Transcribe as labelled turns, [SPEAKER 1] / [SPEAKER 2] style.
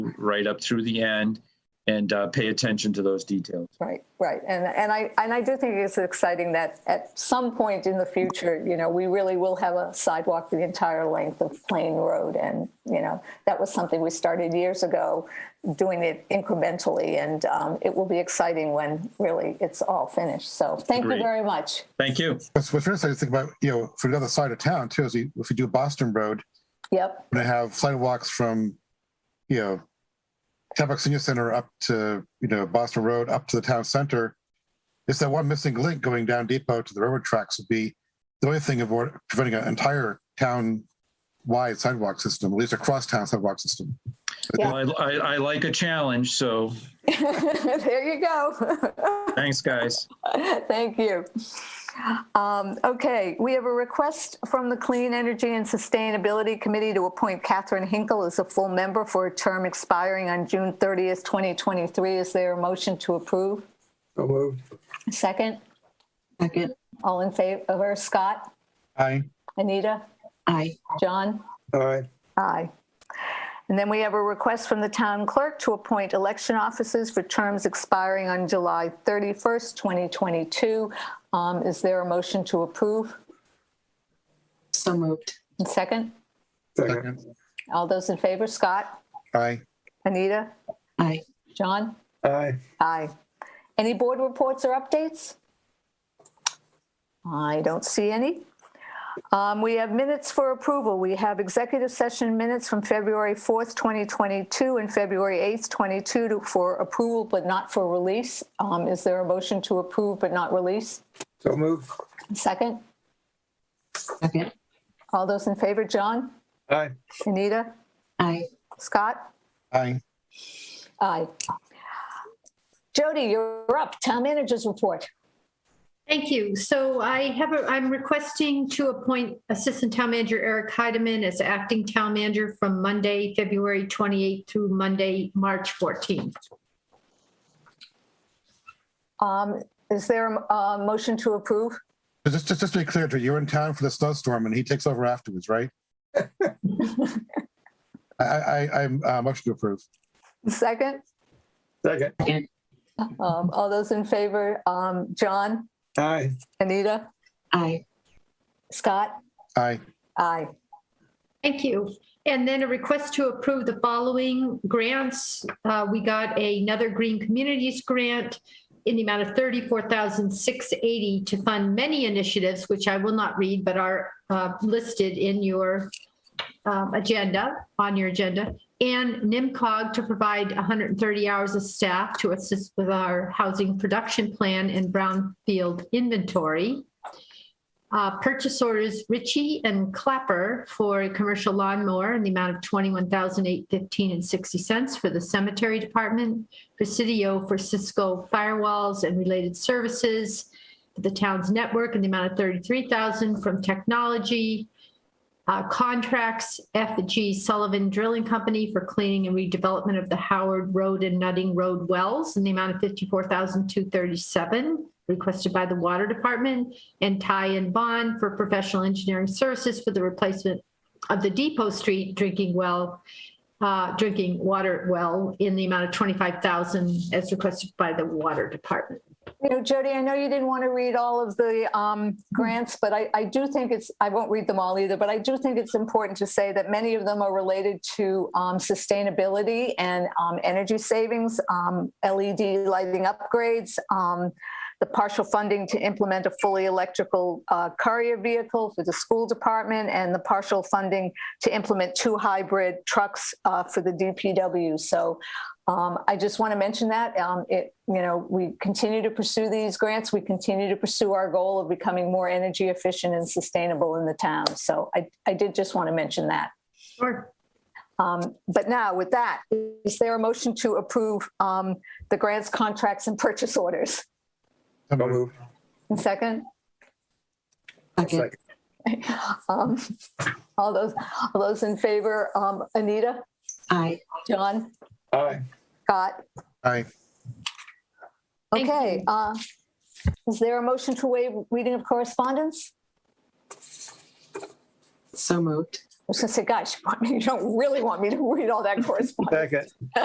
[SPEAKER 1] right up through the end and uh, pay attention to those details.
[SPEAKER 2] Right, right. And, and I, and I do think it's exciting that at some point in the future, you know, we really will have a sidewalk the entire length of Plain Road. And, you know, that was something we started years ago, doing it incrementally. And um, it will be exciting when really it's all finished. So thank you
[SPEAKER 1] Agreed.
[SPEAKER 2] very much.
[SPEAKER 1] Thank you.
[SPEAKER 3] That's what's really exciting to think about, you know, for the other side of town too, is you- if you do Boston Road,
[SPEAKER 2] Yep,
[SPEAKER 3] we're gonna have sidewalks from, you know, Tampax Senior Center up to, you know, Boston Road up to the town center. It's that one missing link going down Depot to the railroad tracks would be the only thing of what- preventing an entire town-wide sidewalk system, at least a cross-town sidewalk system.
[SPEAKER 2] Yeah.
[SPEAKER 1] Well, I, I, I like a challenge, so
[SPEAKER 2] there you go.
[SPEAKER 1] thanks, guys.
[SPEAKER 2] Thank you. Um, Okay, we have a request from the Clean Energy and Sustainability Committee to appoint Catherine Hinkle as a full member for a term expiring on June 30th, 2023. Is there a motion to approve?
[SPEAKER 4] So moved.
[SPEAKER 2] Second,
[SPEAKER 5] Second,
[SPEAKER 2] all in favor, Scott,
[SPEAKER 3] Aye.
[SPEAKER 2] Anita,
[SPEAKER 5] aye.
[SPEAKER 2] John?
[SPEAKER 4] Aye.
[SPEAKER 2] Aye. And then we have a request from the town clerk to appoint election officers for terms expiring on July 31st, 2022. Um, Is there a motion to approve?
[SPEAKER 5] So moved.
[SPEAKER 2] And Second,
[SPEAKER 4] Second.
[SPEAKER 2] all those in favor, Scott,
[SPEAKER 3] Aye.
[SPEAKER 2] Anita,
[SPEAKER 5] Aye.
[SPEAKER 2] John?
[SPEAKER 4] Aye.
[SPEAKER 2] Aye. Any board reports or updates? I don't see any. Um, We have minutes for approval. We have executive session minutes from February 4th, 2022 and February 8th, 22 to- for approval but not for release. Um, Is there a motion to approve but not release?
[SPEAKER 4] So moved.
[SPEAKER 2] Second,
[SPEAKER 5] Second,
[SPEAKER 2] all those in favor, John,
[SPEAKER 4] Aye.
[SPEAKER 2] Anita,
[SPEAKER 5] aye.
[SPEAKER 2] Scott?
[SPEAKER 3] Aye.
[SPEAKER 2] Aye. Jody, you're up. Town managers report.
[SPEAKER 6] Thank you. So I have, a- I'm requesting to appoint Assistant Town Manager Eric Heideman as acting town manager from Monday, February 28th through Monday, March 14th.
[SPEAKER 2] Um, Is there a a motion to approve?
[SPEAKER 3] Just, just, just to be clear, Drew, you're in town for the snowstorm and he takes over afterwards, right? I, I, I'm, uh, motion to approve.
[SPEAKER 2] Second,
[SPEAKER 4] Second.
[SPEAKER 2] um, all those in favor, um, John,
[SPEAKER 4] Aye.
[SPEAKER 2] Anita,
[SPEAKER 5] Aye.
[SPEAKER 2] Scott?
[SPEAKER 3] Aye.
[SPEAKER 2] Aye.
[SPEAKER 6] Thank you. And then a request to approve the following grants. Uh, We got another Green Communities grant in the amount of 34680 to fund many initiatives, which I will not read, but are uh, listed in your um, agenda, on your agenda. And NIMCOG to provide 130 hours of staff to assist with our housing production plan and brownfield inventory uh, purchase orders Ritchie and Clapper for a commercial lawnmower in the amount of $21,815 and 60 cents for the cemetery department, Presidio for Cisco firewalls and related services, for the town's network in the amount of $33,000 from technology, uh, contracts, F.G. Sullivan Drilling Company for cleaning and redevelopment of the Howard Road and Nutting Road wells in the amount of $54,237 requested by the Water Department, and Ty and Bond for professional engineering services for the replacement of the Depot Street drinking well, uh, drinking water well in the amount of 25,000 as requested by the Water Department.
[SPEAKER 2] You know, Jody, I know you didn't want to read all of the, um, grants, but I, I do think it's, I won't read them all either, but I do think it's important to say that many of them are related to, um, sustainability and, um, energy savings, um, LED lighting upgrades, um, the partial funding to implement a fully electrical uh, courier vehicle for the school department and the partial funding to implement two hybrid trucks uh, for the DPW. So um, I just want to mention that um, it, you know, we continue to pursue these grants. We continue to pursue our goal of becoming more energy efficient and sustainable in the town. So I, I did just want to mention that.
[SPEAKER 6] Sure.
[SPEAKER 2] Um, But now with that, is there a motion to approve um, the grants, contracts and purchase orders?
[SPEAKER 3] So
[SPEAKER 4] So
[SPEAKER 3] moved.
[SPEAKER 4] moved.
[SPEAKER 2] And Second?
[SPEAKER 5] Second,
[SPEAKER 4] Second.
[SPEAKER 2] Um, All those, all those in favor, um, Anita,
[SPEAKER 5] aye.
[SPEAKER 2] John,
[SPEAKER 4] Aye.
[SPEAKER 2] Scott?
[SPEAKER 3] Aye.
[SPEAKER 6] Thank
[SPEAKER 2] Okay.
[SPEAKER 6] you.
[SPEAKER 2] uh, Is there a motion to waive reading of correspondence?
[SPEAKER 5] So moved.
[SPEAKER 2] I was gonna say, gosh, you want me- you don't really want me to read all that correspondence.
[SPEAKER 4] Second.